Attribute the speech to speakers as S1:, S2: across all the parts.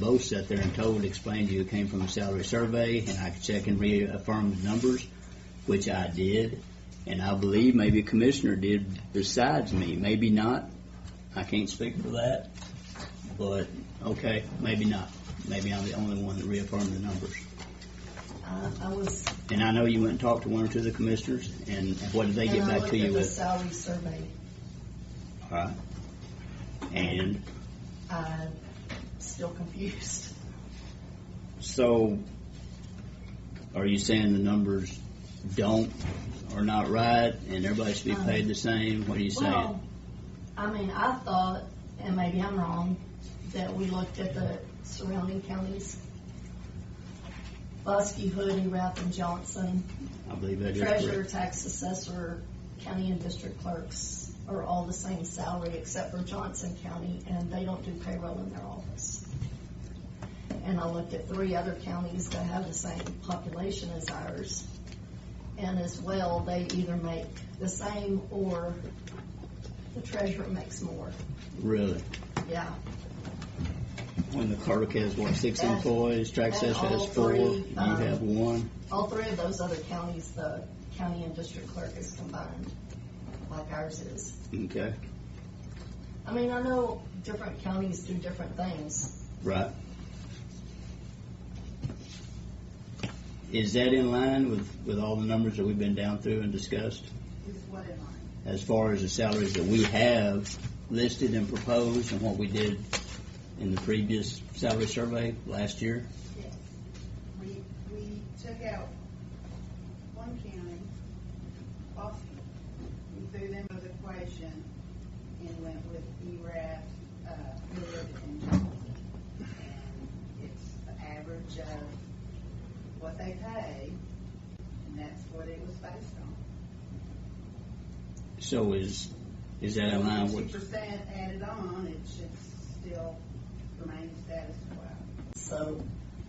S1: both sat there and told, explained to you it came from a salary survey, and I could check and reaffirm the numbers, which I did. And I believe maybe a commissioner did besides me, maybe not. I can't speak for that, but, okay, maybe not. Maybe I'm the only one that reaffirmed the numbers.
S2: I, Uh, I was.
S1: And I know you went and talked to one or two of the commissioners, and what did they get
S2: and
S1: back
S2: I
S1: to
S2: looked
S1: you
S2: at the
S1: with?
S2: Salary survey,
S1: All right. And
S2: I'm still confused.
S1: So, are you saying the numbers don't, are not right, and everybody should be
S2: Um,
S1: paid the same? What are you saying?
S2: Well, I mean, I thought, and maybe I'm wrong, that we looked at the surrounding counties. Buskey, Hood, Rath, and Johnson,
S1: I believe that is
S2: treasurer,
S1: correct.
S2: tax assessor, county and district clerks are all the same salary except for Johnson County, and they don't do payroll in their office. And I looked at three other counties that have the same population as ours. And as well, they either make the same or the treasurer makes more,
S1: Really?
S2: yeah.
S1: When the clerk has, what, six
S2: And-
S1: employees, track
S2: and
S1: says has
S2: all
S1: four,
S2: three,
S1: you
S2: um,
S1: have one?
S2: All three of those other counties, the county and district clerk is combined, like ours is.
S1: Okay,
S2: I mean, I know different counties do different things.
S1: right. Is that in line with, with all the numbers that we've been down through and discussed?
S2: With what in mind?
S1: as far as the salaries that we have listed and proposed and what we did in the previous salary survey last year?
S3: Yes. We, we took out one county, Boston, we threw them out of the equation and went with ERAF, uh, Hood and Johnson. And it's the average of what they pay, and that's what it was based on.
S1: So is, is that in line
S3: Two
S1: with,
S3: percent added on, it should still remain status quo.
S2: So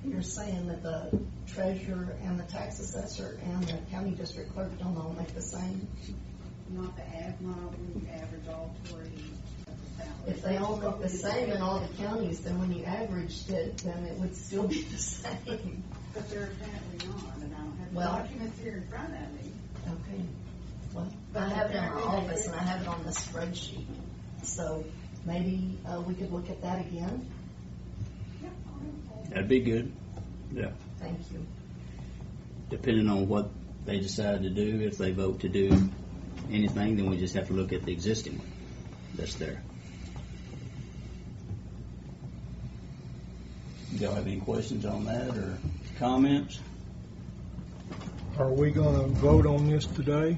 S2: you're saying that the treasurer and the tax assessor and the county district clerk don't all make the same?
S3: Not the ad model, average all three of the salary.
S2: If they all make the same in all the counties, then when you averaged it, then it would still be the same.
S3: But they're apparently not, and I don't have the
S2: Well-
S3: documents here in front of me.
S2: Okay. Well, I have it in my office and I have it on the spreadsheet. So maybe uh, we could look at that again.
S1: that'd be good,
S2: Thank you.
S1: depending on what they decide to do. If they vote to do anything, then we just have to look at the existing one that's there. Y'all have any questions on that or comments?
S4: Are we gonna vote on this today?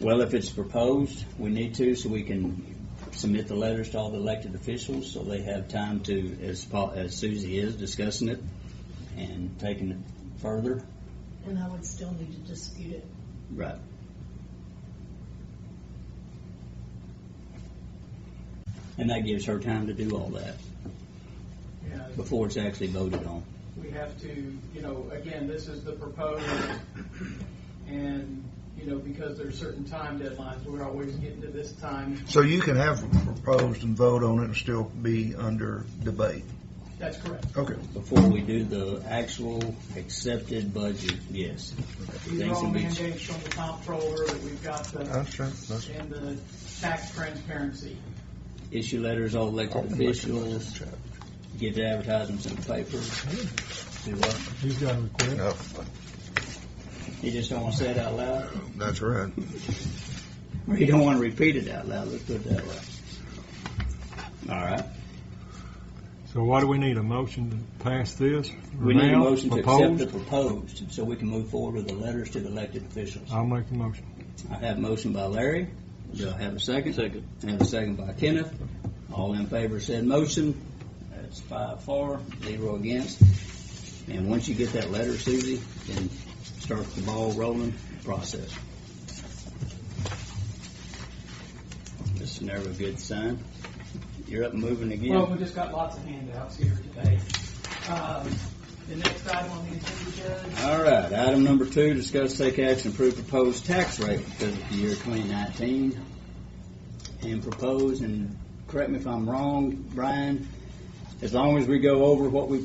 S1: Well, if it's proposed, we need to, so we can submit the letters to all the elected officials, so they have time to, as Pa- as Susie is discussing it and taking it further.
S2: And I would still need to dispute it.
S1: Right. And that gives her time to do all that
S5: Yeah,
S1: before it's actually voted on.
S5: we have to, you know, again, this is the proposed, and, you know, because there's certain time deadlines, we're always getting to this time.
S6: So you can have proposed and vote on it and still be under debate.
S5: That's correct.
S6: Okay.
S1: Before we do the actual accepted budget, yes.
S5: These are
S1: Things
S5: all
S1: will be-
S5: mandates from the comptroller that we've got the,
S6: Understand.
S5: and the tax transparency.
S1: Issue letters, all elected officials, get the advertisements in the paper. Do what?
S4: He's got a request.
S6: No,
S1: You just don't want to say it out loud,
S6: that's right.
S1: or you don't want to repeat it out loud. Let's put it that way. All right.
S4: So why do we need a motion to pass this?
S1: We need a
S4: Now?
S1: motion to accept
S4: Proposed?
S1: the proposed, so we can move forward with the letters to the elected officials.
S4: I'll make the motion.
S1: I have a motion by Larry. Do I have a second? Second. I have a second by Kenneth. All in favor said motion. That's five for, zero against. And once you get that letter, Susie, then start the ball rolling process. This is never a good sign. You're up and moving
S5: Well,
S1: again.
S5: we just got lots of handouts here today. Um, The next item on the agenda, Judge,
S1: All right, item number two, discuss take action, approve proposed tax rate for the year 2019. And propose, and correct me if I'm wrong, Brian, as long as we go over what we